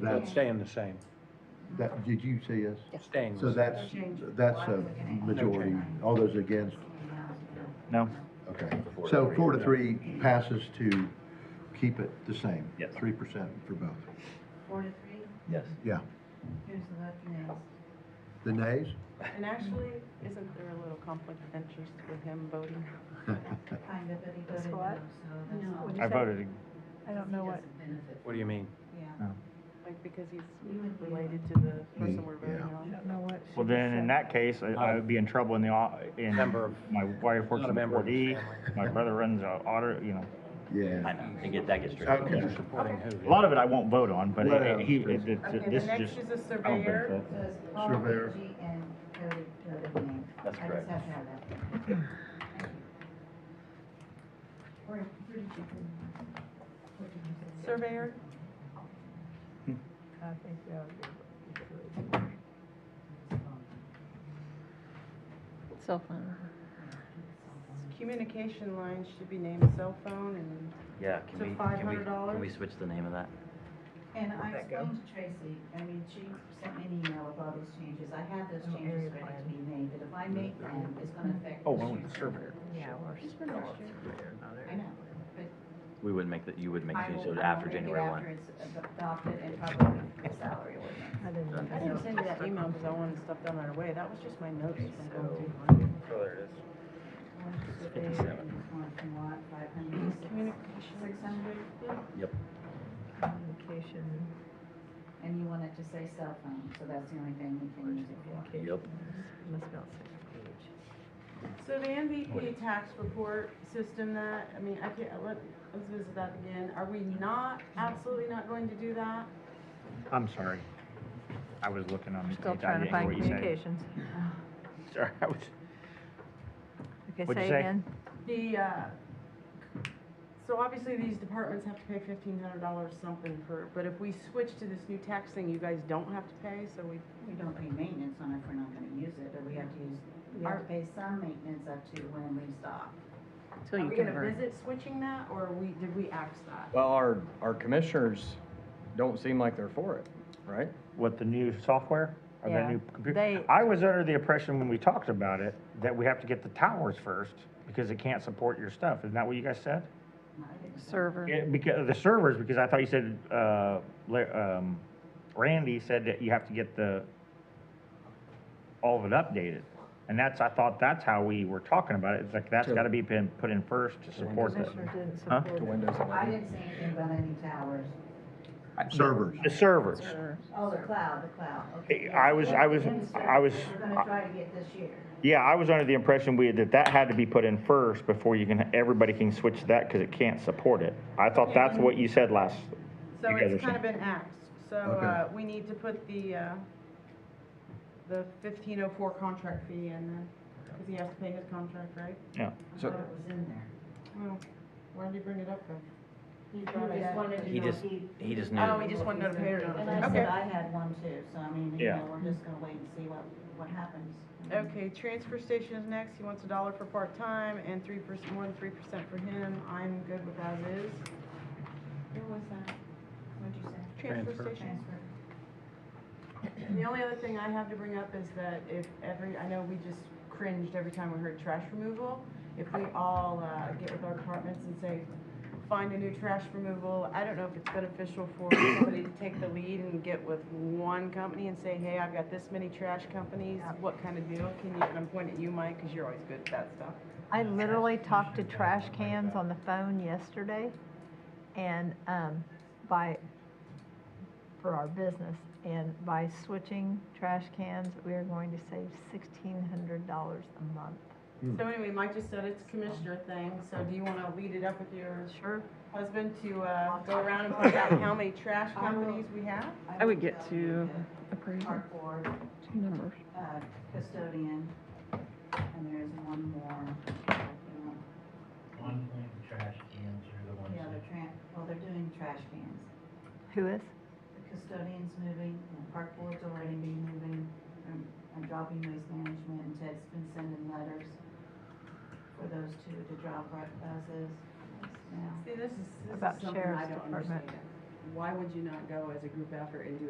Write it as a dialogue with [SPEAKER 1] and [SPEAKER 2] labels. [SPEAKER 1] So
[SPEAKER 2] It's
[SPEAKER 1] that's,
[SPEAKER 2] staying the same,
[SPEAKER 1] that, did you see us?
[SPEAKER 2] staying the
[SPEAKER 1] So
[SPEAKER 2] same.
[SPEAKER 1] that's, that's a majority. All those against?
[SPEAKER 3] No.
[SPEAKER 1] Okay.
[SPEAKER 4] Four to
[SPEAKER 1] So
[SPEAKER 4] three.
[SPEAKER 1] four to three passes to keep it the same.
[SPEAKER 3] Yes.
[SPEAKER 1] Three percent for both.
[SPEAKER 5] Four to three,
[SPEAKER 3] Yes.
[SPEAKER 1] Yeah.
[SPEAKER 5] who's the left and yes?
[SPEAKER 1] The nays?
[SPEAKER 6] And actually, isn't there a little conflict of interest with him voting?
[SPEAKER 5] Kind of, but he voted no,
[SPEAKER 7] what?
[SPEAKER 5] so
[SPEAKER 7] What'd
[SPEAKER 5] that's.
[SPEAKER 7] you
[SPEAKER 3] I
[SPEAKER 7] say?
[SPEAKER 3] voted,
[SPEAKER 7] I don't know what,
[SPEAKER 2] What do you mean?
[SPEAKER 5] Yeah.
[SPEAKER 6] Like, because he's related to the person we're voting
[SPEAKER 1] Yeah.
[SPEAKER 7] I
[SPEAKER 6] on?
[SPEAKER 7] don't know what. she
[SPEAKER 3] well, then
[SPEAKER 7] said.
[SPEAKER 3] in that case, I- I would be in trouble in the, au- in.
[SPEAKER 2] Member of-
[SPEAKER 3] My wife works
[SPEAKER 2] Not a
[SPEAKER 3] in the
[SPEAKER 2] member
[SPEAKER 3] four
[SPEAKER 2] of the
[SPEAKER 3] D,
[SPEAKER 2] family.
[SPEAKER 3] my brother runs an audit, you know.
[SPEAKER 1] Yeah.
[SPEAKER 4] And get, that gets
[SPEAKER 1] Okay.
[SPEAKER 4] straightened
[SPEAKER 2] Who's supporting who?
[SPEAKER 3] A lot of it I won't vote on, but
[SPEAKER 1] Right.
[SPEAKER 3] it- it- he, it- it-
[SPEAKER 6] Okay,
[SPEAKER 3] this
[SPEAKER 6] the
[SPEAKER 3] is
[SPEAKER 6] next
[SPEAKER 3] just.
[SPEAKER 6] is a
[SPEAKER 3] I don't
[SPEAKER 6] surveyor.
[SPEAKER 3] think
[SPEAKER 5] So it's Paul
[SPEAKER 1] Surveyor.
[SPEAKER 5] G and Cody, Cody name.
[SPEAKER 4] That's
[SPEAKER 5] I just
[SPEAKER 4] correct.
[SPEAKER 5] have to have that. Thank you. Or, who did you- what did you say?
[SPEAKER 6] Surveyor?
[SPEAKER 7] I think that would be good.
[SPEAKER 8] Cell phone.
[SPEAKER 6] Communication lines should be named cell phone and
[SPEAKER 4] Yeah, can
[SPEAKER 6] To
[SPEAKER 4] we, can we,
[SPEAKER 6] $500?
[SPEAKER 4] can we switch the name of that?
[SPEAKER 5] And I explained to Tracy, I mean, she sent me an email with all these changes. I have
[SPEAKER 7] Oh,
[SPEAKER 5] those changes ready to be made, but if I make them, it's gonna affect.
[SPEAKER 3] Oh,
[SPEAKER 5] the
[SPEAKER 3] well,
[SPEAKER 5] future.
[SPEAKER 3] surveyor.
[SPEAKER 7] Yeah, or
[SPEAKER 5] I know, but
[SPEAKER 4] We would make that, you would make
[SPEAKER 5] I will-
[SPEAKER 4] changes
[SPEAKER 5] I will
[SPEAKER 4] after
[SPEAKER 5] make it
[SPEAKER 4] January one.
[SPEAKER 5] After it's adopted and probably the salary ordinance.
[SPEAKER 7] I didn't.
[SPEAKER 4] Done.
[SPEAKER 6] I didn't send you that email because I wanted stuff done right away. That was just my notes from going through. mine.
[SPEAKER 5] Six hundred,
[SPEAKER 7] Communication,
[SPEAKER 5] and you want it to say cell phone, so that's the only thing we can use it for.
[SPEAKER 4] Yep.
[SPEAKER 7] must be on the second page.
[SPEAKER 6] So the MVP tax report system that, I mean, I can't, let, let's visit that again. Are we not, absolutely not going to do that?
[SPEAKER 3] I'm sorry. I was looking on. the
[SPEAKER 7] Still
[SPEAKER 3] page. I
[SPEAKER 7] trying to
[SPEAKER 3] didn't hear
[SPEAKER 7] find
[SPEAKER 3] what you said.
[SPEAKER 7] communications.
[SPEAKER 3] Sorry, I was,
[SPEAKER 7] Okay,
[SPEAKER 3] What'd you
[SPEAKER 7] say
[SPEAKER 3] say?
[SPEAKER 7] again.
[SPEAKER 6] The, uh, so obviously these departments have to pay fifteen hundred dollars something for, but if we switch to this new tax thing, you guys don't have to pay, so we,
[SPEAKER 5] We don't pay maintenance on it if we're not gonna use it, or we have to use, we have to pay some maintenance up to when we stop.
[SPEAKER 8] Till
[SPEAKER 6] are
[SPEAKER 8] you
[SPEAKER 6] we gonna
[SPEAKER 8] convert.
[SPEAKER 6] visit switching that, or are we, did we axe that?
[SPEAKER 9] Well, our, our commissioners don't seem like they're for it, right?
[SPEAKER 3] what, the new software? Or the
[SPEAKER 7] Yeah,
[SPEAKER 3] new computer?
[SPEAKER 7] they-
[SPEAKER 3] I was under the impression when we talked about it, that we have to get the towers first, because it can't support your stuff. Isn't that what you guys said?
[SPEAKER 5] No, I didn't-
[SPEAKER 8] Server.
[SPEAKER 3] Yeah, because the servers, because I thought you said, uh, La- um, Randy said that you have to get the, all of it updated. And that's, I thought that's how we were talking about it. It's like, that's
[SPEAKER 9] To-
[SPEAKER 3] gotta be pin- put in first to support that.
[SPEAKER 7] Commissioner didn't
[SPEAKER 3] Huh?
[SPEAKER 7] support
[SPEAKER 9] To
[SPEAKER 7] it.
[SPEAKER 9] Windows
[SPEAKER 5] I
[SPEAKER 9] 11.
[SPEAKER 5] didn't say anything about any towers.
[SPEAKER 1] Servers.
[SPEAKER 3] The servers.
[SPEAKER 8] Server.
[SPEAKER 5] Oh, the cloud, the cloud, okay.
[SPEAKER 3] I was- I was- I was-
[SPEAKER 5] We're gonna try to get this year.
[SPEAKER 3] Yeah, I was under the impression we, that that had to be put in first before you can, everybody can switch to that, cause it can't support it. I thought that's what you said last,
[SPEAKER 6] So
[SPEAKER 3] You guys
[SPEAKER 6] it's
[SPEAKER 3] are
[SPEAKER 6] kind of been axed, so,
[SPEAKER 1] Okay.
[SPEAKER 6] uh, we need to put the, uh, the fifteen oh four contract fee in then, because he has to pay his contract, right?
[SPEAKER 3] yeah.
[SPEAKER 5] I
[SPEAKER 9] So-
[SPEAKER 5] thought it was in there.
[SPEAKER 6] Well, why'd you bring it up then?
[SPEAKER 5] He just wanted to
[SPEAKER 4] He
[SPEAKER 5] know
[SPEAKER 4] just, he just knew.
[SPEAKER 6] Oh, we just wanted notification.
[SPEAKER 5] And I
[SPEAKER 6] Okay.
[SPEAKER 5] said I had one too, so I mean, you
[SPEAKER 3] Yeah.
[SPEAKER 5] know, we're just gonna wait and see what, what happens.
[SPEAKER 6] Okay, transfer station is next, he wants a dollar for part-time and three percent, more than three percent for him, I'm good with as is.
[SPEAKER 5] Where was that? What'd you say?
[SPEAKER 6] Transfer
[SPEAKER 2] Transfer.
[SPEAKER 6] station. The only other thing I have to bring up is that if every, I know we just cringed every time we heard trash removal. If we all uh, get with our departments and say, find a new trash removal, I don't know if it's beneficial for somebody to take the lead and get with one company and say, hey, I've got this many trash companies, what kind of deal can you, and I'm pointing at you, Mike, because you're always good at that stuff.
[SPEAKER 7] I literally talked to trash cans on the phone yesterday and, um, by, for our business. And by switching trash cans, we are going to save sixteen hundred dollars a month.
[SPEAKER 6] So anyway, Mike just said it's a commissioner thing, so do you want to lead it up with your
[SPEAKER 7] Sure.
[SPEAKER 6] husband to uh, go around and find out how many trash companies we have?
[SPEAKER 8] I would get to appraiser,
[SPEAKER 5] Uh, Cardboard,
[SPEAKER 8] two numbers.
[SPEAKER 5] uh, custodian, and there's one more. you know,
[SPEAKER 10] One point trash cans are the ones
[SPEAKER 5] The other
[SPEAKER 10] that
[SPEAKER 5] tran, well, they're doing trash cans.
[SPEAKER 7] Who is?
[SPEAKER 5] The custodian's moving, and park board's already been moving, um, and dropping waste management, and Ted's been sending letters for those two to drop right as is now.
[SPEAKER 6] See, this is, this
[SPEAKER 7] About
[SPEAKER 6] is something I
[SPEAKER 7] sheriff's
[SPEAKER 6] don't
[SPEAKER 7] department.
[SPEAKER 6] understand. why would you not go as a group effort and do